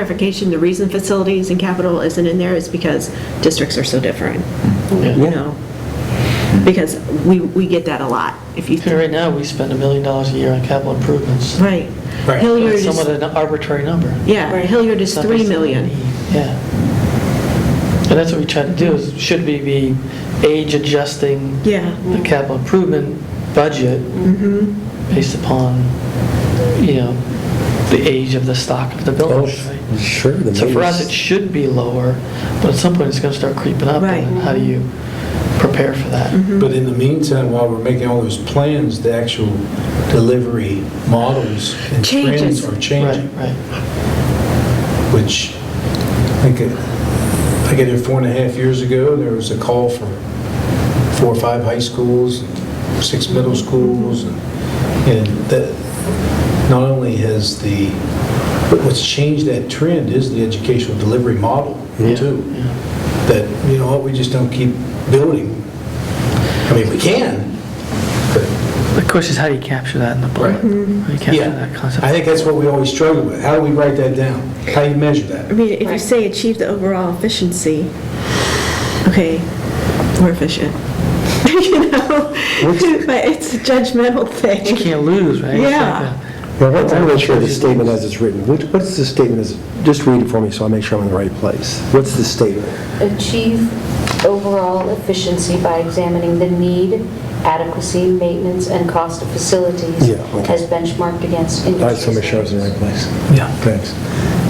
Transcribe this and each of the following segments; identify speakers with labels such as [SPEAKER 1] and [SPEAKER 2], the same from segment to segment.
[SPEAKER 1] Clarification, the reason facilities and capital isn't in there is because districts are so different, you know? Because we, we get that a lot, if you.
[SPEAKER 2] Okay, Right now, we spend a million dollars a year on capital improvements.
[SPEAKER 1] Right.
[SPEAKER 3] Right.
[SPEAKER 1] Hilliard
[SPEAKER 2] It's somewhat
[SPEAKER 1] is,
[SPEAKER 2] an arbitrary number.
[SPEAKER 1] yeah, Hilliard is 3 million.
[SPEAKER 2] Yeah. And that's what we try to do, is should we be age adjusting
[SPEAKER 1] Yeah.
[SPEAKER 2] the capital improvement budget
[SPEAKER 1] Mm-hmm.
[SPEAKER 2] based upon, you know, the age of the stock of the
[SPEAKER 3] Oh,
[SPEAKER 2] building? right?
[SPEAKER 3] sure. the
[SPEAKER 2] So for us, it
[SPEAKER 3] maintenance-
[SPEAKER 2] should be lower, but at some point, it's going to start creeping up.
[SPEAKER 1] Right. Mm-hmm.
[SPEAKER 2] And how do you prepare for that?
[SPEAKER 4] But in the meantime, while we're making all those plans, the actual delivery models and
[SPEAKER 1] Changes.
[SPEAKER 4] trends are
[SPEAKER 2] Right,
[SPEAKER 4] changing,
[SPEAKER 2] right.
[SPEAKER 4] which I think, I get it four and a half years ago, there was a call for four or five high schools, six middle schools, and and that, not only has the, but what's changed that trend is the educational delivery model, too. That, you know, what, we just don't keep building. I mean, we can, but
[SPEAKER 2] The question is, how do you capture that in the bullet?
[SPEAKER 4] Right.
[SPEAKER 2] How do you capture
[SPEAKER 4] Yeah,
[SPEAKER 2] that concept?
[SPEAKER 4] I think that's what we always struggle with. How do we write that down? How do you measure
[SPEAKER 1] I
[SPEAKER 4] that?
[SPEAKER 1] mean, if you say achieve the overall efficiency, okay, we're efficient. You know? But it's a judgmental
[SPEAKER 2] You
[SPEAKER 1] thing.
[SPEAKER 2] can't lose, right? It's like uh,
[SPEAKER 1] Yeah.
[SPEAKER 2] a-
[SPEAKER 3] Well, what- I'm not sure the statement as it's written. What what is the statement as, just read it for me so I make sure I'm in the right place. What's the statement?
[SPEAKER 5] achieve overall efficiency by examining the need, adequacy, maintenance, and cost of facilities
[SPEAKER 3] Yeah, okay.
[SPEAKER 5] as benchmarked
[SPEAKER 3] I just
[SPEAKER 5] against industry
[SPEAKER 3] want to make sure I was in the
[SPEAKER 5] standards.
[SPEAKER 3] right place.
[SPEAKER 4] Yeah.
[SPEAKER 3] Thanks.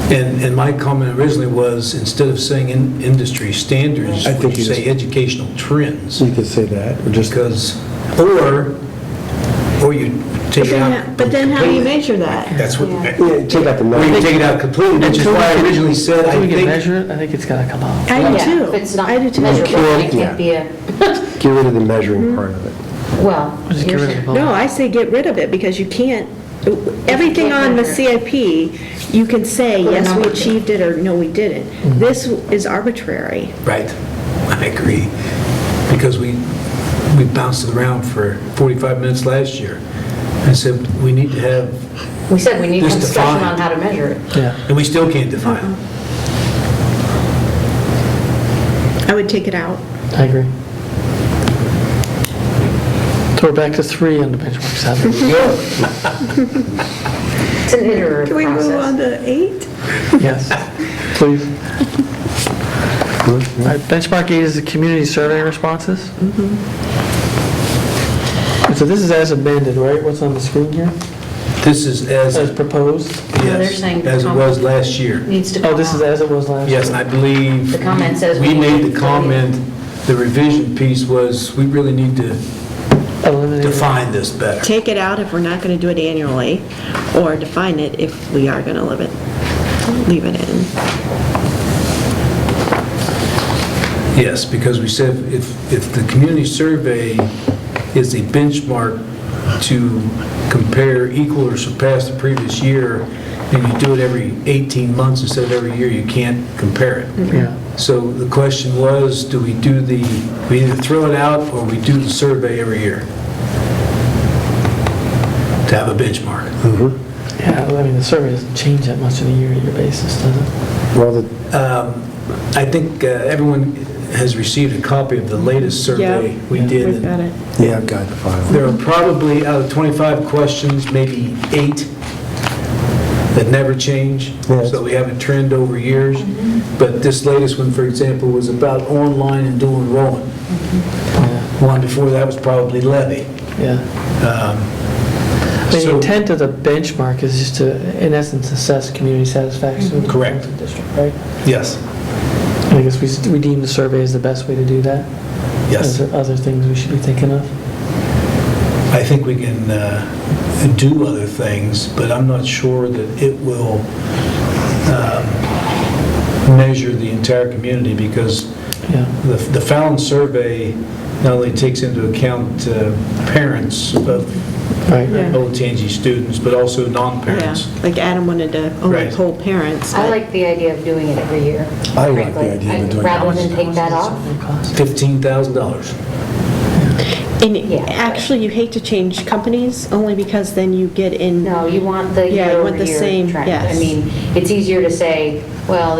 [SPEAKER 4] And, and my comment originally was, instead of saying in- industry standards,
[SPEAKER 3] I think
[SPEAKER 4] would you
[SPEAKER 3] you
[SPEAKER 4] say
[SPEAKER 3] just-
[SPEAKER 4] educational trends?
[SPEAKER 3] You could say that, or just,
[SPEAKER 4] Because, or, or you
[SPEAKER 1] But
[SPEAKER 4] take it
[SPEAKER 1] then,
[SPEAKER 4] out.
[SPEAKER 1] but then how do you
[SPEAKER 4] completely.
[SPEAKER 1] measure that?
[SPEAKER 4] That's what, or
[SPEAKER 3] Yeah, take out the
[SPEAKER 4] you
[SPEAKER 3] number.
[SPEAKER 4] take it out completely, which is
[SPEAKER 2] Until we
[SPEAKER 4] why I
[SPEAKER 2] can-
[SPEAKER 4] originally said,
[SPEAKER 2] Until
[SPEAKER 4] I
[SPEAKER 2] we can
[SPEAKER 4] think,
[SPEAKER 2] measure it, I think it's got to come out.
[SPEAKER 1] I do
[SPEAKER 5] Yeah,
[SPEAKER 1] too.
[SPEAKER 5] if it's not
[SPEAKER 1] I do too.
[SPEAKER 5] measurable, it
[SPEAKER 3] Yeah.
[SPEAKER 5] can't be a,
[SPEAKER 3] Get rid of the measuring part of it.
[SPEAKER 5] well,
[SPEAKER 2] Just get rid of the
[SPEAKER 5] here's-
[SPEAKER 2] bullet.
[SPEAKER 1] No, I say get rid of it, because you can't, everything on the CIP, you can say, yes, we achieved it, Mm-hmm. or no, we didn't. This is arbitrary.
[SPEAKER 4] right, I agree. Because we, we bounced it around for 45 minutes last year. I said, we need to have,
[SPEAKER 5] we said we need
[SPEAKER 4] Just
[SPEAKER 5] some discussion
[SPEAKER 4] define.
[SPEAKER 5] on how to measure it.
[SPEAKER 2] Yeah.
[SPEAKER 4] and we still can't define it.
[SPEAKER 1] Uh-huh. I would take it out.
[SPEAKER 2] I agree. So we're back to three on the benchmark seven.
[SPEAKER 5] It's an iterative
[SPEAKER 1] Can we move on
[SPEAKER 5] process.
[SPEAKER 1] to eight?
[SPEAKER 2] Yes, please. All right, Benchmark eight is the community survey responses.
[SPEAKER 4] Mm-hmm.
[SPEAKER 2] So this is as amended, right? What's on the screen here?
[SPEAKER 4] This is as,
[SPEAKER 2] As proposed?
[SPEAKER 5] they're
[SPEAKER 4] yes,
[SPEAKER 5] saying the
[SPEAKER 4] as it
[SPEAKER 5] com-
[SPEAKER 4] was last year.
[SPEAKER 5] Needs to come
[SPEAKER 2] Oh, this is
[SPEAKER 5] out.
[SPEAKER 2] as it was last?
[SPEAKER 4] Yes, and I believe.
[SPEAKER 5] The comment says
[SPEAKER 4] We
[SPEAKER 5] we
[SPEAKER 4] made
[SPEAKER 5] need
[SPEAKER 4] the
[SPEAKER 5] to-
[SPEAKER 4] comment, the revision piece was, we really need to
[SPEAKER 2] Eliminated.
[SPEAKER 4] define this better.
[SPEAKER 1] Take it out if we're not going to do it annually, or define it if we are going to live it, leave it in.
[SPEAKER 4] Yes, because we said if, if the community survey is a benchmark to compare equal or surpass the previous year, and you do it every 18 months instead of every year, you can't compare it.
[SPEAKER 2] Yeah.
[SPEAKER 4] So the question was, do we do the, we either throw it out or we do the survey every year? To have a benchmark.
[SPEAKER 2] Yeah, I mean, the survey doesn't change that much on a year-to-year basis, does it?
[SPEAKER 3] Well, the-
[SPEAKER 4] Um, I think uh, everyone has received a copy of the latest survey we
[SPEAKER 1] it.
[SPEAKER 4] did.
[SPEAKER 3] yeah, I've got the file.
[SPEAKER 4] There are probably, out of 25 questions, maybe eight that never change,
[SPEAKER 3] Yes.
[SPEAKER 4] so we have a trend over years. But this latest one, for example, was about online and dual enrollment.
[SPEAKER 2] Yeah.
[SPEAKER 4] One before that was probably levy.
[SPEAKER 2] Yeah. The
[SPEAKER 4] Um, So-
[SPEAKER 2] intent of the benchmark is just to, in essence, assess community satisfaction with the
[SPEAKER 4] Mm-hmm. Correct.
[SPEAKER 2] performance of the district, right?
[SPEAKER 4] Yes,
[SPEAKER 2] I guess we s- we deem the survey as the best way to do that? Is
[SPEAKER 4] yes.
[SPEAKER 2] there other things we should be thinking of?
[SPEAKER 4] I think we can uh, do other things, but I'm not sure that it will um, measure the entire community, because
[SPEAKER 2] Yeah,
[SPEAKER 4] the the Fallon survey not only takes into account uh, parents of
[SPEAKER 2] right.
[SPEAKER 1] Yeah.
[SPEAKER 4] OTNG students, but also non-parents.
[SPEAKER 1] Yeah, like Adam wanted to only
[SPEAKER 4] Right.
[SPEAKER 1] poll parents.
[SPEAKER 5] I
[SPEAKER 1] but-
[SPEAKER 5] like the idea of doing it every year.
[SPEAKER 3] I like the
[SPEAKER 5] frankly.
[SPEAKER 3] idea of
[SPEAKER 5] I'd
[SPEAKER 3] doing it.
[SPEAKER 5] Rather than take that off,
[SPEAKER 4] $15,000.
[SPEAKER 1] And
[SPEAKER 5] Yeah.
[SPEAKER 1] actually, you hate to change companies, only because then you get in...
[SPEAKER 5] No, you want the
[SPEAKER 1] Yeah, you want the
[SPEAKER 5] year-over-year
[SPEAKER 1] same,
[SPEAKER 5] trend.
[SPEAKER 1] yes.
[SPEAKER 5] I mean, it's easier to say, well,